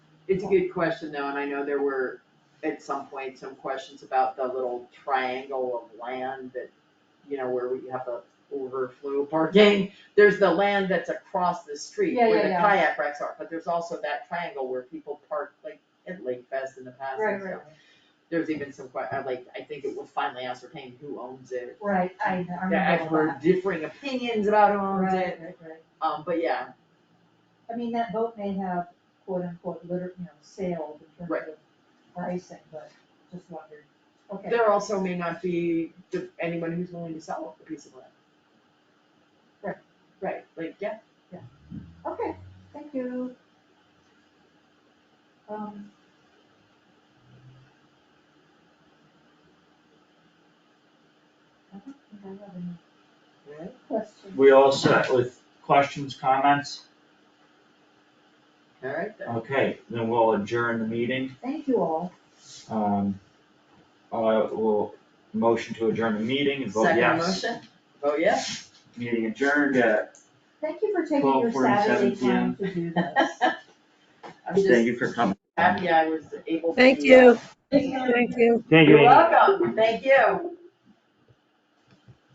It's a good question though, and I know there were at some point some questions about the little triangle of land that, you know, where we have the overflow parking. There's the land that's across the street Yeah, where yeah, the yeah. kayak racks are, but there's also that triangle where people park like at Lake Fest in the past and Right, stuff. right, There's even some que- uh, like, I think it was finally ascertained who owns it. right, I, I remember all The expert that. differing opinions about who owns it, Right, right, right. um, but yeah, I mean, that boat may have quote unquote litter, you know, sailed in Right. terms of pricing, but just wondered, okay. There also may not be the- anyone who's willing to sell a piece of land. Right. Right, like, yeah, Okay, thank you. Um. I don't think I have any right, questions. We all set with questions, comments? alright then. Okay, then we'll adjourn the meeting. Thank you all. Um, uh, we'll motion to adjourn the meeting and vote Second yes. motion, oh yeah, Meeting adjourned at, Thank you for taking your 12:47 Saturday time PM. to do this. I'm thank just you for coming. happy I was able to. Thank do that. you. Thank you. Thank You're welcome, thank you.